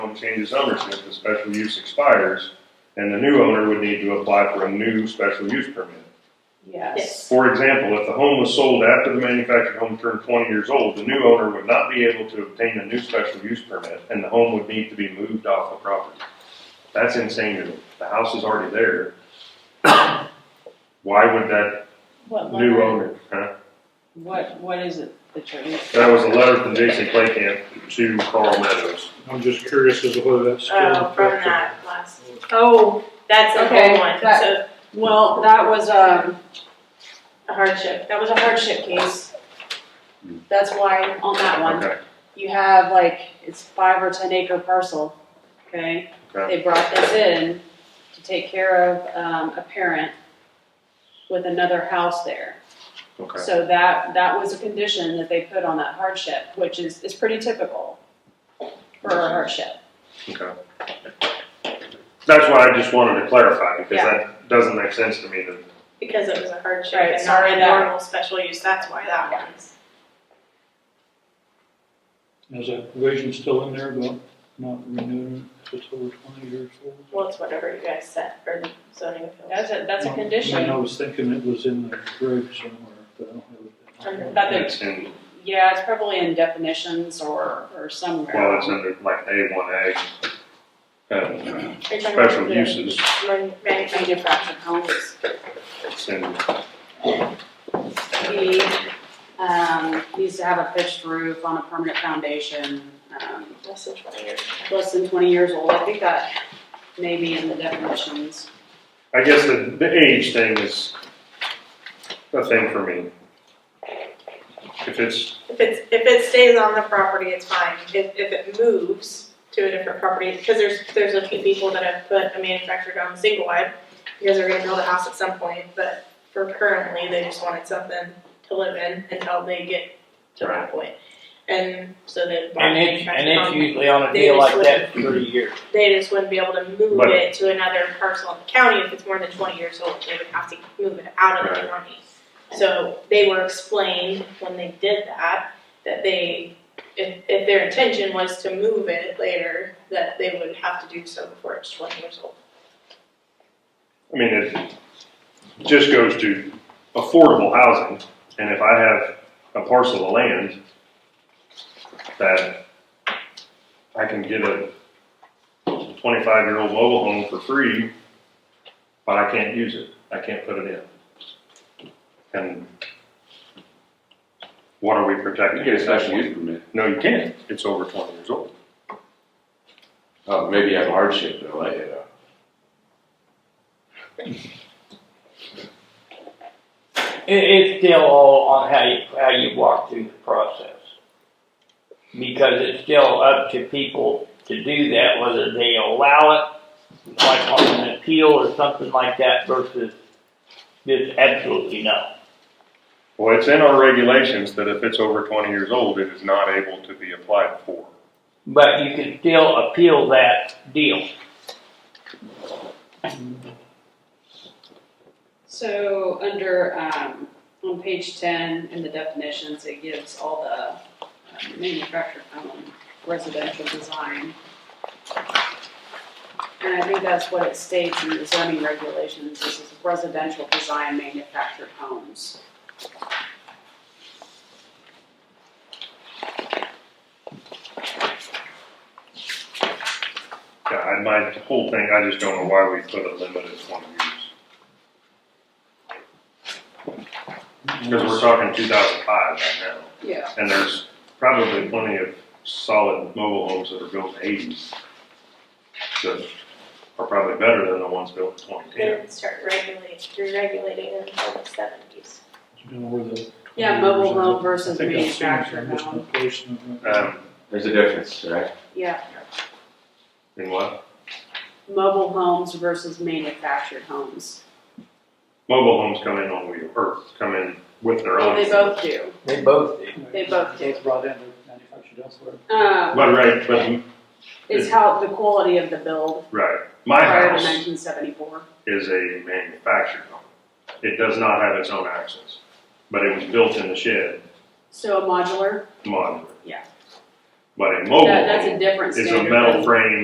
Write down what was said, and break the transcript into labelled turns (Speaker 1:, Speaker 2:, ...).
Speaker 1: don't changes ownership, the special use expires, and the new owner would need to apply for a new special use permit.
Speaker 2: Yes.
Speaker 1: For example, if the home was sold after the manufactured home turned twenty years old, the new owner would not be able to obtain a new special use permit, and the home would need to be moved off the property. That's insane to me. The house is already there. Why would that
Speaker 2: What
Speaker 1: new
Speaker 2: letter-
Speaker 1: owner, huh?
Speaker 2: What, what is it, attorney?
Speaker 1: That was a letter from Jason Claycamp to Carl Meadows.
Speaker 3: I'm just curious as to whether that's still.
Speaker 4: Oh, from that last, oh, that's the
Speaker 2: Okay,
Speaker 4: whole one,
Speaker 2: that-
Speaker 4: so
Speaker 2: Well, that was, um,
Speaker 4: a hardship,
Speaker 2: that was a hardship case. That's why on that one,
Speaker 1: Okay,
Speaker 2: you have like, it's five or ten acre parcel, okay?
Speaker 1: okay.
Speaker 2: They brought this in to take care of, um, a parent with another house there.
Speaker 1: Okay.
Speaker 2: So that, that was a condition that they put on that hardship, which is, is pretty typical for a hardship.
Speaker 1: Okay. That's why I just wanted to clarify, because that doesn't make sense to me that
Speaker 4: because it was a hardship
Speaker 2: Right,
Speaker 4: and not
Speaker 2: sorry,
Speaker 4: a
Speaker 2: that-
Speaker 4: normal special use, that's why that one is.
Speaker 3: Is that provision still in there about not renewing if it's over twenty years old?
Speaker 4: Well, it's whatever you guys set for the zoning appeals.
Speaker 2: That's a, that's a
Speaker 3: I
Speaker 2: condition.
Speaker 3: know, I was thinking it was in the grave somewhere, but I don't have it.
Speaker 2: That they-
Speaker 1: it's in
Speaker 2: Yeah, it's probably in definitions or, or
Speaker 1: Well,
Speaker 2: somewhere.
Speaker 1: it's under like A one A. Um,
Speaker 4: Are you talking about
Speaker 1: special
Speaker 4: the
Speaker 1: uses,
Speaker 4: man- manufactured-
Speaker 2: Manufactured homes.
Speaker 1: it's in,
Speaker 2: He,
Speaker 1: uh,
Speaker 2: um, needs to have a pitched roof on a permanent foundation, um,
Speaker 4: Less than twenty years.
Speaker 2: less than twenty years old. I think that may be in the definitions.
Speaker 1: I guess the, the age thing is a thing for me. If it's,
Speaker 4: If it's, if it stays on the property, it's fine, if, if it moves to a different property, because there's, there's a few people that have put a manufactured home single wide, because they're gonna build a house at some point, but for currently, they just wanted something to live in until they get to that point. And so they bought a
Speaker 5: And it's,
Speaker 4: manufactured
Speaker 5: and it's
Speaker 4: home,
Speaker 5: usually on a
Speaker 4: They
Speaker 5: deal
Speaker 4: just
Speaker 5: like that for thirty years.
Speaker 4: they just wouldn't be able to move
Speaker 1: But-
Speaker 4: it to another parcel in the county if it's more than twenty years old, they would have to move it out of the
Speaker 1: Right.
Speaker 4: county. So they were explained when they did that, that they, if, if their intention was to move it later, that they would have to do so before it's twenty years old.
Speaker 1: I mean, it just goes to affordable housing, and if I have a parcel of land that I can get a twenty-five year old mobile home for free, but I can't use it, I can't put it in. And what are we protecting?
Speaker 6: You get a special use permit.
Speaker 1: No, you can't, it's over twenty years old.
Speaker 6: Oh, maybe you have a hardship though, like, uh, you know.
Speaker 5: It, it's still all on how you, how you walk through the process. Because it's still up to people to do that, whether they allow it, like on an appeal or something like that versus just absolutely no.
Speaker 1: Well, it's in our regulations that if it's over twenty years old, it is not able to be applied for.
Speaker 5: But you can still appeal that deal.
Speaker 2: So under, um, on page ten in the definitions, it gives all the um, manufactured home residential design. And I think that's what it states in the zoning regulations, this is residential design manufactured homes.
Speaker 1: Yeah, I, my whole thing, I just don't know why we put a limit at twenty years. Because we're talking two thousand five right now,
Speaker 2: Yeah.
Speaker 1: and there's probably plenty of solid mobile homes that are built in the eighties that are probably better than the ones built in twenty
Speaker 4: They
Speaker 1: ten.
Speaker 4: would start regulating, re-regulating in the seventies.
Speaker 3: You know, where the.
Speaker 2: Yeah, mobile home
Speaker 3: I
Speaker 2: versus
Speaker 3: think I've seen it, I'm
Speaker 2: manufactured
Speaker 3: just
Speaker 2: home,
Speaker 3: not placing it right.
Speaker 1: Um,
Speaker 6: There's a difference, right?
Speaker 2: yeah,
Speaker 1: in what?
Speaker 2: mobile homes versus manufactured homes.
Speaker 1: Mobile homes come in on wheel, or come in with their
Speaker 2: Well,
Speaker 1: own.
Speaker 2: they both do,
Speaker 5: They both do.
Speaker 2: they both do.
Speaker 3: It's brought in, but manufactured elsewhere.
Speaker 2: Um,
Speaker 1: But right, but,
Speaker 2: is how the quality of the build
Speaker 1: right, my
Speaker 2: prior to
Speaker 1: house
Speaker 2: nineteen seventy-four.
Speaker 1: is a manufactured home. It does not have its own access, but it was built in the shed
Speaker 2: So a modular,
Speaker 1: monitor.
Speaker 2: Yeah.
Speaker 1: But a
Speaker 2: that,
Speaker 1: mobile
Speaker 2: that's a
Speaker 1: home
Speaker 2: different
Speaker 1: is Oh, a
Speaker 2: standard.
Speaker 1: metal frame